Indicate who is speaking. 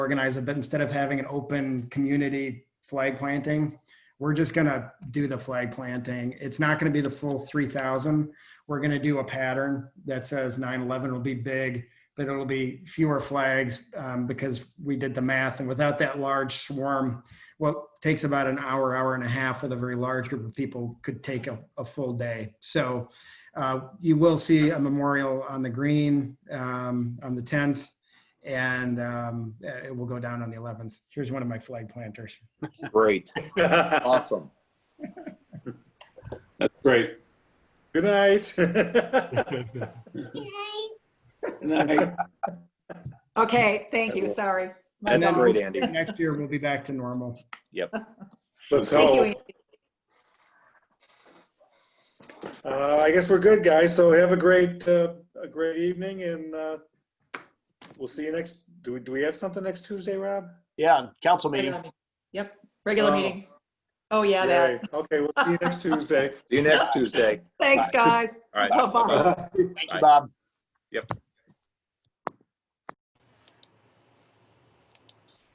Speaker 1: organize it, but instead of having an open community flag planting, we're just gonna do the flag planting. It's not gonna be the full three thousand. We're gonna do a pattern that says nine eleven will be big, but it'll be fewer flags um, because we did the math and without that large swarm, what takes about an hour, hour and a half with a very large group of people could take a, a full day. So uh, you will see a memorial on the green um, on the tenth and um, uh, it will go down on the 11th. Here's one of my flag planters.
Speaker 2: Great,
Speaker 3: That's
Speaker 2: awesome.
Speaker 3: great.
Speaker 4: Good night.
Speaker 3: Nice.
Speaker 5: Okay, thank you, sorry. My
Speaker 1: And
Speaker 2: That's
Speaker 1: then
Speaker 5: bad.
Speaker 2: great,
Speaker 1: we'll-
Speaker 2: Andy.
Speaker 1: Next year we'll be back to normal.
Speaker 4: Let's
Speaker 5: Thank you,
Speaker 4: hope.
Speaker 5: Andy.
Speaker 4: Uh, I guess we're good, guys. So have a great, uh, a great evening and, uh, we'll see you next, do we, do we have something next Tuesday, Rob?
Speaker 6: Yeah, council meeting.
Speaker 5: Yep, regular
Speaker 4: Oh.
Speaker 5: meeting. Oh, yeah,
Speaker 4: Yay.
Speaker 5: that.
Speaker 4: Okay, we'll see you next Tuesday.
Speaker 2: See you next Tuesday.
Speaker 5: Thanks, guys.
Speaker 2: All right.
Speaker 5: Bye-bye.
Speaker 6: Thank you, Bob.